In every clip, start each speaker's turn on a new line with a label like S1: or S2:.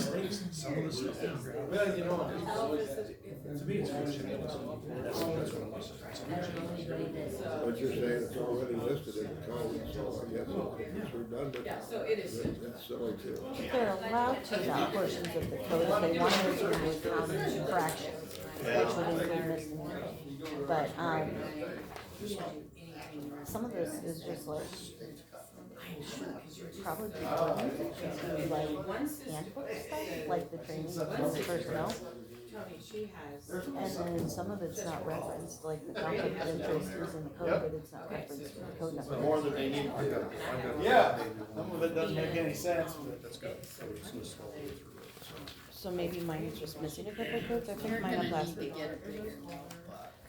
S1: some of the stuff.
S2: Well, you know,
S3: To
S2: to me, it's really-
S4: What you're saying is already listed in the code, so I guess it's redundant.
S3: Yeah, so it is.
S4: That- That's silly too.
S5: They're allowed to have portions of the code if they want to remove common infractions, which would include misdemeanor. But, um, some of this is just like, probably like
S3: One sister,
S5: handbook stuff, like the training for personnel.
S3: Tony, she has.
S5: And then some of it's not referenced, like the conflict of interest is in the code, but it's not referenced in the code number.
S2: more than they need. Yeah, some of it doesn't make any sense, but.
S1: That's got, so it's gonna scroll through it, so.
S5: So maybe mine is just missing a couple codes, I think mine have last week.
S6: get a bigger,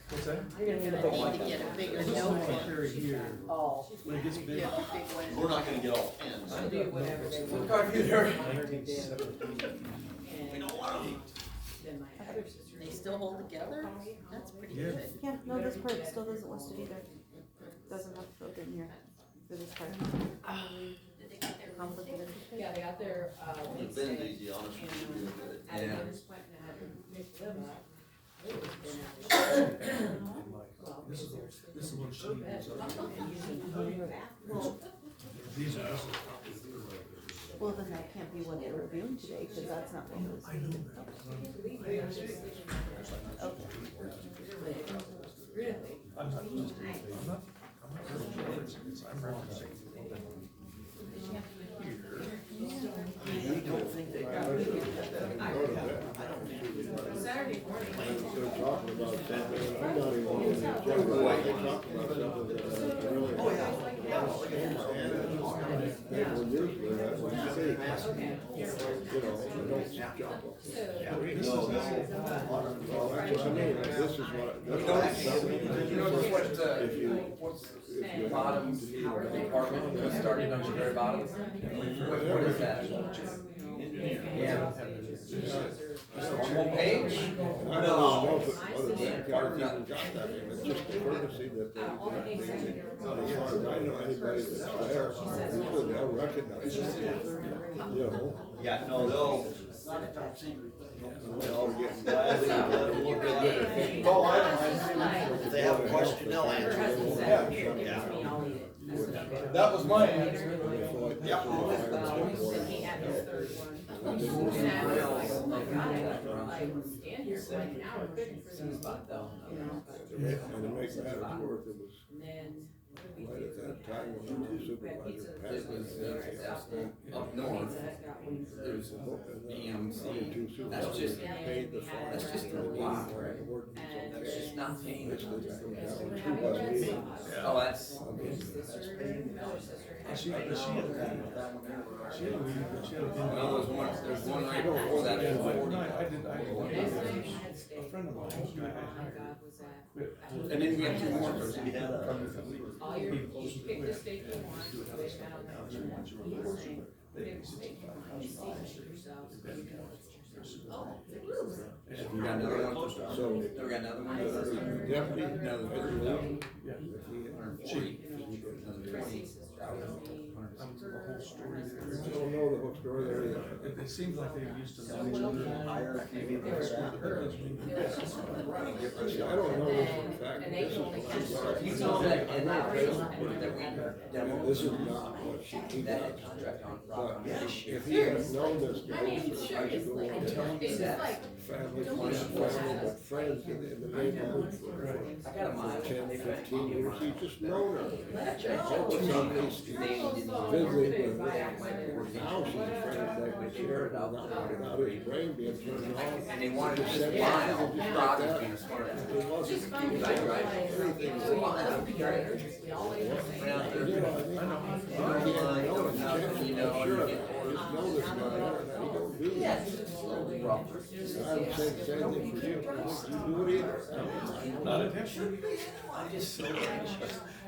S2: What's that?
S5: You're gonna need a big
S6: to
S5: one.
S6: get a bigger
S2: This is my
S6: notebook.
S2: carry here,
S5: Oh.
S1: When it gets big,
S6: Yeah, a big one.
S7: We're not gonna get all pins.
S3: She'll do whatever they want.
S2: nineteen seventy.
S3: And Then my other sister.
S6: They still hold together? That's pretty
S1: Yeah.
S6: good.
S5: Yeah, no, this part still doesn't list it either. Doesn't have to go in here for this part. Conflict of interest.
S3: Yeah, they got their, uh,
S7: It's
S3: Wednesday.
S7: been easy, honestly,
S3: And
S7: should be good.
S3: I
S7: Yeah.
S3: just went and had Nick live up. It was been out. Well,
S1: This is the-
S3: seriously.
S1: this is what she needs.
S5: Well,
S1: These are, this is the right there.
S5: well, then that can't be what they're reviewing today, cause that's not what was.
S1: I know that.
S5: Okay.
S3: Really?
S1: I'm not, I'm not, I'm not referencing this, I'm referencing. Here.
S7: We don't think they got rid of it.
S3: Saturday morning.
S4: They're talking about something, and I'm not even in the general, they're talking about something that I really. Oh, yeah. They were usually, that's what you see.
S3: Okay.
S4: You know, they don't jump up.
S3: So, uh,
S1: This is,
S4: Well, that's what I mean, like, this is what. this is something-
S8: You notice what, uh,
S4: If you,
S8: what's
S4: if you.
S8: bottoms, department, what's starting on your very bottom? What what is that? Yeah. One more page?
S4: No.
S3: uh, all the things I did.
S7: Yeah, no, they'll. They'll get glad they let them look at it.
S3: Oh, I don't know.
S7: If they have a question, they'll
S3: Her
S7: answer.
S3: husband said, here, give it to me, I'll eat it. That's what I did.
S2: That was my answer.
S3: And he had his third one. And I was like, oh my god, I got, like, stand here for like an hour, couldn't for this spot though, you know, but-
S4: And to make matters worse, it was
S3: And then. what did we
S4: right
S3: do?
S4: at that time
S3: We
S4: when we were
S3: had pizza.
S4: supervisor.
S8: It was, uh, up north,
S3: Pizza Hut got wings.
S8: there's EMC, that's
S3: And
S8: just, that's just
S3: then
S8: not paying.
S3: we're having red sauce.
S8: Oh, that's,
S3: Her sister, her sister had-
S1: Oh, she, she had, she had, she had.
S8: well, there's one, there's one right before that,
S1: Yeah,
S8: it's
S1: like,
S8: forty.
S1: no, I did, I.
S3: The next night I had steak.
S1: A friend of mine, I
S3: Oh
S1: had-
S3: my god, was that.
S1: quit.
S3: I-
S8: And then we have two
S7: We had
S8: more.
S7: a,
S3: All your, you pick the steak you want, you wish out, and he's saying, pick the steak you want, you see it yourself. Oh, it was.
S8: We got another one for, so, we got another one.
S4: Deputy,
S8: for- Another thirty,
S1: Yeah.
S8: another forty, another twenty.
S3: Chrissy's sister was me.
S1: Um, the whole story there.
S4: I don't know the whole story there yet.
S1: It, it seems like they used to know each other.
S4: I don't know this for a fact.
S3: And they told me.
S8: You saw that, and that, that we, that
S4: This is not what she, he
S8: That
S4: does.
S8: had contract on
S4: But
S8: Rock
S4: if he had known this,
S3: I mean, seriously, I don't, it's just like,
S4: family, friends, family, but friends in the- in the neighborhood for
S8: I got a mile.
S4: ten, fifteen years, he just known her.
S8: That's
S4: Visit with her house, and friends that we shared, not, not his brain being turned on.
S8: And they wanted to send mile, Rock is being smart.
S4: It wasn't.
S3: just find it.
S8: Right, right.
S3: Everything's a lot. We always say.
S8: Right out
S4: You know,
S8: there.
S4: I think- Sure,
S8: You know, I don't know, you know, you get-
S4: I just know this guy, and he don't do
S8: Yes.
S4: this. I would say the same thing for you, you do it either.
S1: Not intentionally.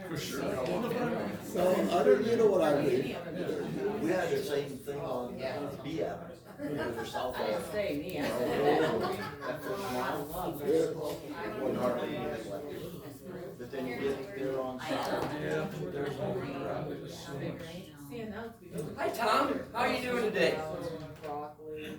S8: For sure. Well,
S4: So, other, you know what I mean?
S7: we had the same thing on uh, B Avenue, over South
S3: I didn't
S7: Avenue.
S3: say me, I
S7: Oh,
S3: said that.
S7: no, no, That first mile,
S4: Yeah.
S7: it wasn't hardly any left. But then you get there on South.
S1: Yeah, there's one around it.
S3: Seeing that.
S8: Hi, Tom. How are you doing today?
S3: Broccoli.